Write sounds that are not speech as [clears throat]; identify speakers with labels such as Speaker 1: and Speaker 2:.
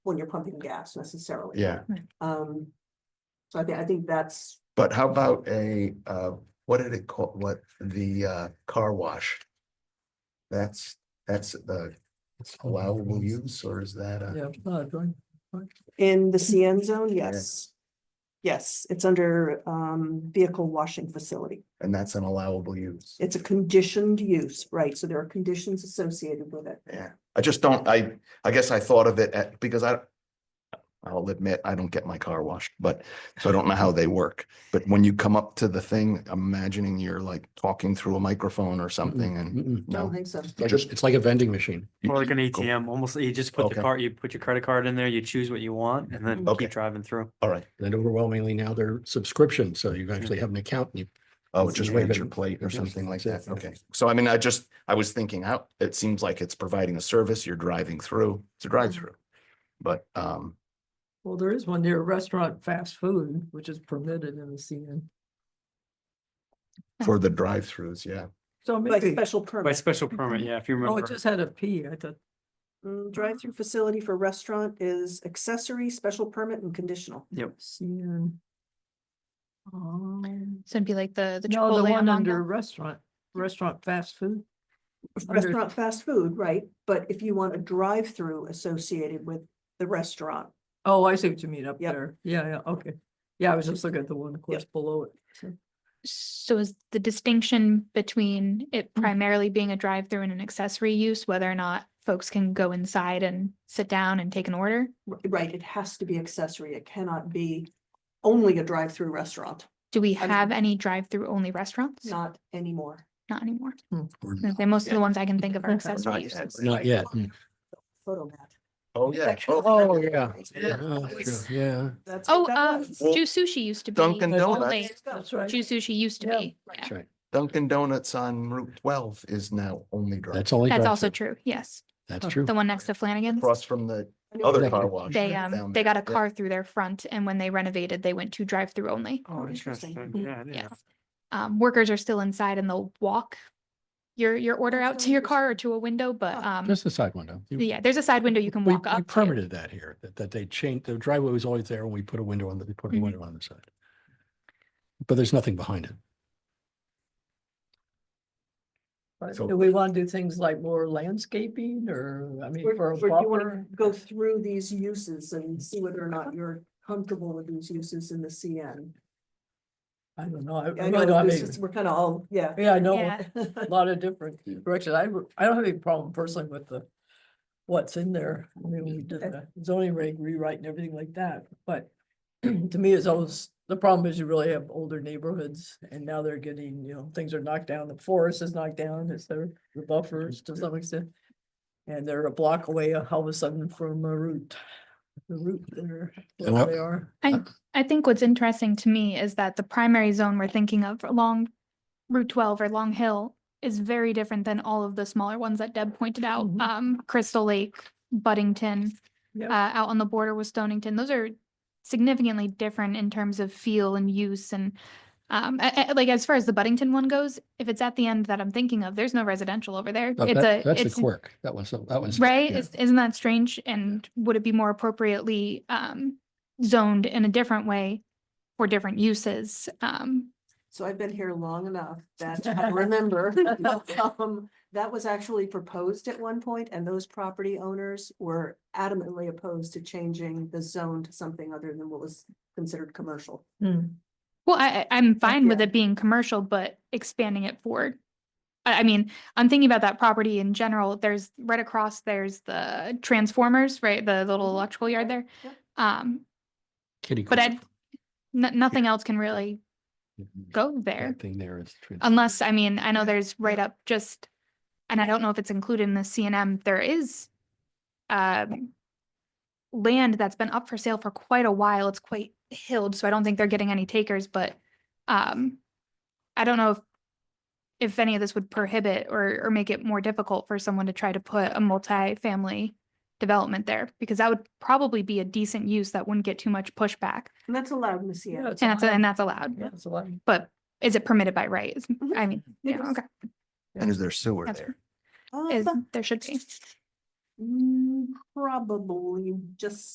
Speaker 1: when you're pumping gas necessarily.
Speaker 2: yeah,
Speaker 1: Um, so I think, I think that's,
Speaker 2: but how about a, uh, what did it call, what, the, uh, car wash? That's, that's, uh, allowable use, or is that a?
Speaker 3: Yeah, uh, joint,
Speaker 1: in the CN zone, yes. Yes, it's under, um, vehicle washing facility.
Speaker 2: And that's an allowable use.
Speaker 1: It's a conditioned use, right? So there are conditions associated with it.
Speaker 2: Yeah, I just don't, I, I guess I thought of it at, because I. I'll admit, I don't get my car washed, but, so I don't know how they work, but when you come up to the thing, I'm imagining you're like talking through a microphone or something and.
Speaker 3: mm-mm.
Speaker 1: I don't
Speaker 2: No,
Speaker 1: think so.
Speaker 3: Like, a- it's like a vending machine.
Speaker 2: You-
Speaker 4: Or like an
Speaker 2: [laughs] cool.
Speaker 4: ATM, almost, you just put
Speaker 2: Okay.
Speaker 4: the card, you put your credit card in there, you choose what you want and then
Speaker 2: Okay.
Speaker 4: keep driving through.
Speaker 2: all right,
Speaker 3: And overwhelmingly now they're subscription, so you actually have an account and you
Speaker 2: oh,
Speaker 3: It's
Speaker 2: just
Speaker 3: the way
Speaker 2: wait
Speaker 3: that-
Speaker 2: your plate or
Speaker 3: Yes,
Speaker 2: something like
Speaker 3: that's
Speaker 2: that,
Speaker 3: it, yeah.
Speaker 2: okay. So I mean, I just, I was thinking out, it seems like it's providing a service, you're driving through, it's a drive-through. But, um,
Speaker 5: Well, there is one near a restaurant, fast food, which is permitted in the CN.
Speaker 2: for the drive-throughs, yeah,
Speaker 5: So
Speaker 1: Like
Speaker 5: maybe,
Speaker 1: special
Speaker 4: By
Speaker 1: permit.
Speaker 4: special permit, yeah, if you
Speaker 5: oh,
Speaker 4: remember.
Speaker 5: it just had a P, I thought,
Speaker 1: Mm, Drive-through facility for restaurant is accessory, special permit and conditional.
Speaker 4: Yep.
Speaker 5: CN. Um,
Speaker 6: So it'd be like the, the
Speaker 5: no, the
Speaker 6: Chipotle on
Speaker 5: one under
Speaker 6: Monday.
Speaker 5: restaurant, restaurant, fast food. Under-
Speaker 1: Restaurant, fast food, right? But if you want a drive-through associated with the restaurant,
Speaker 5: Oh, I see what you mean up
Speaker 1: Yep.
Speaker 5: there. Yeah, yeah, okay. Yeah, I was just looking at the one, of course, below it. so.
Speaker 6: So is the distinction between it
Speaker 5: Mm.
Speaker 6: primarily being a drive-through and an accessory use, whether or not folks can go inside and sit down and take an order?
Speaker 1: r- right, it has to be accessory. It cannot be only a drive-through restaurant,
Speaker 6: Do we
Speaker 1: I'm-
Speaker 6: have any drive-through only restaurants?
Speaker 1: not anymore.
Speaker 6: Not anymore.
Speaker 3: Or
Speaker 6: I was gonna say, Most of the ones I can think of
Speaker 5: [laughs]
Speaker 6: are
Speaker 5: Not
Speaker 6: accessory
Speaker 2: yet.
Speaker 6: uses.
Speaker 3: not yet. mm.
Speaker 1: Photo mat.
Speaker 2: oh, yeah.
Speaker 1: Section-
Speaker 2: Oh,
Speaker 3: Oh, yeah.
Speaker 1: Yeah.
Speaker 3: Oh,
Speaker 1: It's-
Speaker 3: Yeah.
Speaker 1: That's
Speaker 6: Oh,
Speaker 1: what
Speaker 6: uh,
Speaker 1: that was.
Speaker 2: Well,
Speaker 6: Ju Sushi used to be.
Speaker 2: Dunkin' Donuts.
Speaker 6: only-
Speaker 5: That's right.
Speaker 6: Ju Sushi used to
Speaker 5: Yeah,
Speaker 6: be.
Speaker 5: right.
Speaker 6: yeah.
Speaker 3: That's right.
Speaker 2: Dunkin' Donuts on Route twelve is now only drive,
Speaker 3: That's only.
Speaker 6: That's also
Speaker 3: drive-thru.
Speaker 6: true, yes.
Speaker 3: That's true.
Speaker 6: The one next to Flanagan's.
Speaker 2: across from the
Speaker 1: I know
Speaker 2: other
Speaker 1: that-
Speaker 2: car wash.
Speaker 6: They,
Speaker 2: down
Speaker 6: um, they
Speaker 2: there.
Speaker 6: got a
Speaker 2: Yeah.
Speaker 6: car through their front and when they renovated, they went to drive-through only.
Speaker 4: Oh,
Speaker 1: interesting.
Speaker 4: interesting.
Speaker 1: Mm,
Speaker 4: Yeah, it
Speaker 6: yes.
Speaker 4: is.
Speaker 6: um, workers are still inside and they'll walk your, your order
Speaker 1: That's
Speaker 6: out
Speaker 1: so
Speaker 6: to your car
Speaker 1: interesting.
Speaker 6: or to a window, but,
Speaker 1: Huh.
Speaker 6: um,
Speaker 3: Oh, Just the side window. You-
Speaker 6: yeah, there's a side window you can
Speaker 3: We
Speaker 6: walk
Speaker 3: we
Speaker 6: up. to.
Speaker 3: permitted that here, that, that they changed, the driveway was always there and we put a window on the, we put a
Speaker 6: Mhm.
Speaker 3: window on the side. But there's nothing behind it.
Speaker 5: But
Speaker 2: So-
Speaker 5: Do we want to do things like more landscaping or, I mean,
Speaker 1: Or
Speaker 5: for
Speaker 1: or
Speaker 5: a
Speaker 1: do you wanna
Speaker 5: buffer?
Speaker 1: go through these uses and see whether or not you're comfortable with these uses in the CN?
Speaker 5: I don't know. I- I
Speaker 1: I
Speaker 5: really don't
Speaker 1: know,
Speaker 5: have
Speaker 1: this
Speaker 5: any-
Speaker 1: is- we're kind of all, yeah.
Speaker 5: Yeah, I know,
Speaker 6: Yeah.
Speaker 5: a [laughs] lot of different directions. I, w- I don't have any problem personally with the, what's in there. I mean, we did
Speaker 1: Okay.
Speaker 5: the zoning reg rewrite and everything like that, but [clears throat] to me, it's always, the problem is you really have older neighborhoods and now they're getting, you know, things are knocked down, the forest is knocked down, it's there, the buffers to some extent. And they're a block away uh, all of a sudden from a route, the route there,
Speaker 3: And
Speaker 5: where
Speaker 3: what-
Speaker 5: they are.
Speaker 6: I, I think what's interesting to me is that the primary zone we're thinking of along Route twelve or Long Hill is very different than all of the smaller ones that Deb pointed out.
Speaker 5: Mhm.
Speaker 6: Um, Crystal Lake, Buddington, uh,
Speaker 5: Yep.
Speaker 6: out on the border with Stonington, those are significantly different in terms of feel and use and um, a- a- like as far as the Buddington one goes, if it's at the end that I'm thinking of, there's no residential over there.
Speaker 3: That-
Speaker 6: It's
Speaker 3: Oh, that-
Speaker 6: a,
Speaker 3: That's the
Speaker 6: it's
Speaker 3: quirk. That was, that was.
Speaker 6: Right?
Speaker 3: yeah.
Speaker 6: Is- Isn't that strange? And would it be more appropriately um zoned in a different way for different uses? Um,
Speaker 1: So I've been here long enough that I remember. um, That was actually proposed at one point and those property owners were adamantly opposed to changing the zone to something other than what was considered commercial.
Speaker 5: Hmm.
Speaker 6: well, I I- I'm fine with
Speaker 1: yeah.
Speaker 6: it being commercial, but expanding it forward. I I mean, I'm thinking about that property in general. There's right across, there's the transformers, right? The little
Speaker 1: Mhm.
Speaker 6: electrical yard there.
Speaker 1: Yep.
Speaker 6: Um,
Speaker 3: Kitty.
Speaker 6: but
Speaker 3: corner.
Speaker 6: I, no, nothing else can really go there.
Speaker 3: That thing there is. trans-
Speaker 6: Unless, I mean, I know
Speaker 5: Yeah,
Speaker 6: there's right up just, and I don't know if it's included in the CNM, there is um land that's been up for sale for quite a while. It's quite hilled, so I don't think they're getting any takers, but um I don't know if if any of this would prohibit or or make it more difficult for someone to try to put a multi-family development there, because that would probably be a decent use that wouldn't get too much pushback.
Speaker 1: And that's allowed in the
Speaker 5: Yeah,
Speaker 1: CN.
Speaker 5: it's a
Speaker 6: And that's,
Speaker 5: lot.
Speaker 6: and that's allowed,
Speaker 5: Yeah, it's a lot.
Speaker 6: but is it permitted by right? Is-
Speaker 1: Mhm.
Speaker 6: I mean,
Speaker 1: It
Speaker 6: yeah,
Speaker 1: is.
Speaker 6: okay.
Speaker 2: And is there sewer
Speaker 6: That's-
Speaker 2: there?
Speaker 1: Uh,
Speaker 6: is, there should be.
Speaker 1: Mm, Probably just